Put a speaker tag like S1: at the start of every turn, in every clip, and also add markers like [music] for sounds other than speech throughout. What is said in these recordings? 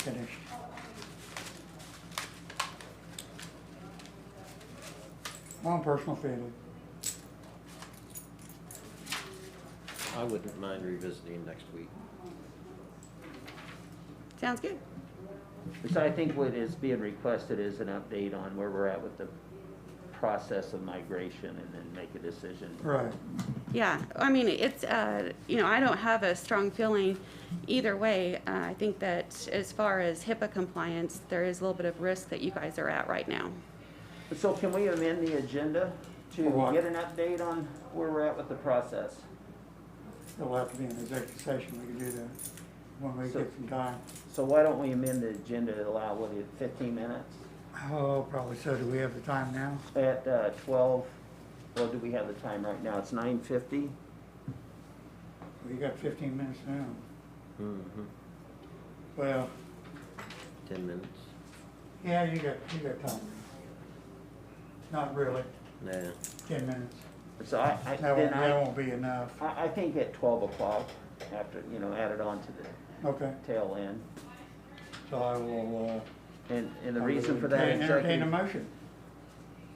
S1: finished. My own personal feeling.
S2: I wouldn't mind revisiting next week.
S3: Sounds good.
S4: So I think what is being requested is an update on where we're at with the process of migration and then make a decision.
S1: Right.
S3: Yeah, I mean, it's, uh, you know, I don't have a strong feeling either way. Uh, I think that as far as HIPAA compliance, there is a little bit of risk that you guys are at right now.
S4: So can we amend the agenda to
S1: For what?
S4: get an update on where we're at with the process?
S1: It'll have to be an executive session, we can do that when we
S4: So-
S1: get some time.
S4: So why don't we amend the agenda to allow, what, it, fifteen minutes
S1: Oh, probably so, do we have the time now?
S4: at uh, twelve? Well, do we have the time right now? It's nine fifty?
S1: We got fifteen minutes now.
S2: Mm-hmm.
S1: Well,
S2: Ten minutes?
S1: yeah, you got, you got time. Not really,
S2: Nah.
S1: ten minutes.
S4: So I, I,
S1: That won't,
S4: then
S1: that
S4: I,
S1: won't be enough.
S4: I, I think at twelve o'clock, after, you know, add it on to the
S1: Okay,
S4: tail end.
S1: so I will,
S4: And,
S1: uh.
S4: and the
S1: I
S4: reason
S1: will
S4: for that
S1: entertain- Entertain a
S4: executive,
S1: motion,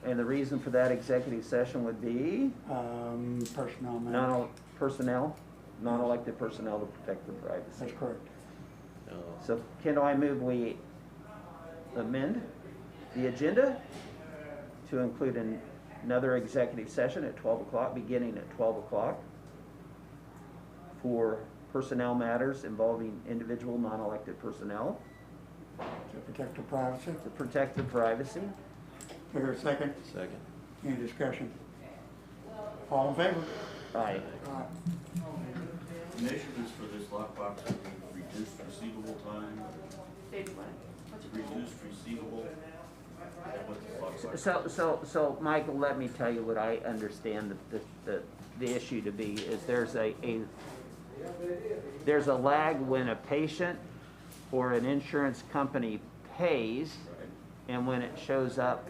S4: and the reason for that executive session would be
S1: um, personnel matter.
S4: non, personnel, non-elected personnel to protect their privacy.
S1: That's correct.
S2: Oh.
S4: So can I move we amend the agenda to include an- another executive session at twelve o'clock, beginning at twelve o'clock for personnel matters involving individual non-elected personnel
S1: To protect the privacy.
S4: to protect the privacy.
S1: Do I hear a second?
S2: Second.
S1: Any discussion? All in favor?
S4: Aye.
S1: Aye.
S5: Initiatives for this lockbox would be reduced receivable time, reduced receivable. That was the lockbox.
S4: So, so, so, Michael, let me tell you what I understand the, the, the issue to be, is there's a, a, there's a lag when a patient or an insurance company pays and when it shows up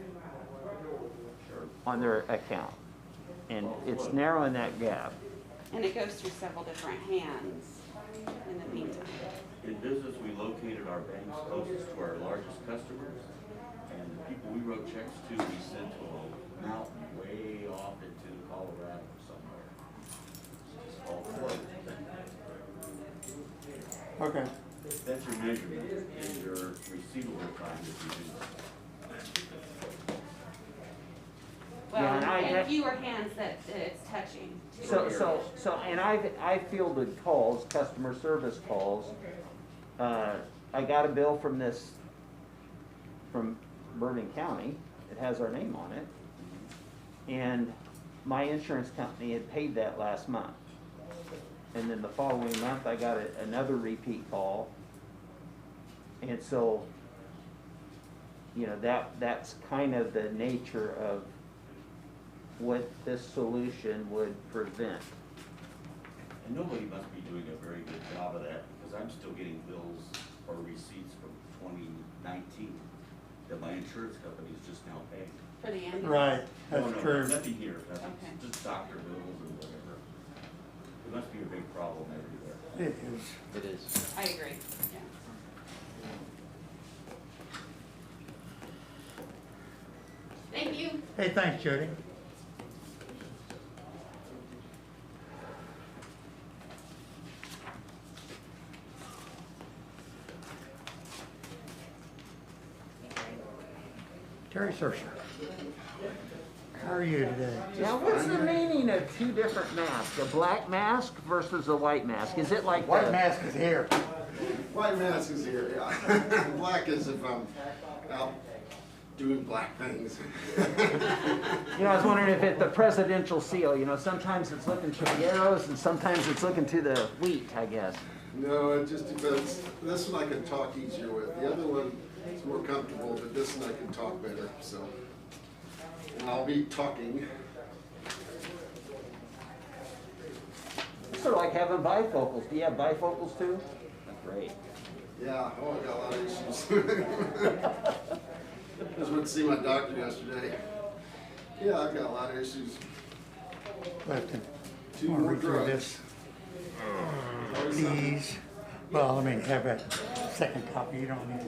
S4: on their account. And it's narrowing that gap.
S3: And it goes through several different hands in the meantime.
S5: In business, we located our banks closest to our largest customers, and the people we wrote checks to, we sent to a mountain way off into Colorado or somewhere. It's all flooded.
S1: Okay,
S5: That's your measurement, is your receivable time is reduced.
S4: Yeah,
S3: Well,
S4: and I-
S3: and fewer hands that that it's touching.
S4: So, so, so, and I've, I fielded calls, customer service calls. Uh, I got a bill from this, from Bourbon County, it has our name on it. And my insurance company had paid that last month. And then the following month, I got a- another repeat call. And so, you know, that, that's kind of the nature of what this solution would prevent.
S5: And nobody must be doing a very good job of that, because I'm still getting bills or receipts from twenty nineteen that my insurance company is just now paying.
S3: For the ambulance.
S1: right,
S5: No,
S1: that's
S5: no,
S1: true.
S5: Nothing here, nothing,
S3: Okay.
S5: just doctor bills and whatever. It must be a big problem everywhere.
S1: It is.
S2: It is.
S3: I agree, yeah. Thank you.
S1: Hey, thanks, Jody. Terry Sersha. How are you today?
S4: Now, what's the meaning of two different masks? A black mask versus a white mask? Is it like
S1: White
S4: the-
S1: mask is here.
S6: White mask is here, yeah. [laughs] black is if I'm out doing black things. [laughs]
S4: You know, I was wondering if it the presidential seal. You know, sometimes it's looking to the arrows and sometimes it's looking to the wheat. I guess.
S6: no, it just depends. This one I can talk easier with. The other one is more comfortable, but this one I can talk better. So, and I'll be talking.
S4: It's sort of like having bifocals. Do you have bifocals too? Great.
S6: Yeah, oh, I got a lot of issues. [laughs] just went to see my doctor yesterday. Yeah, I've got a lot of issues.
S1: Clifton.
S6: Two
S1: Wanna
S6: more
S1: read through
S6: drugs.
S1: this, Please. Well, let me have that second copy, you don't need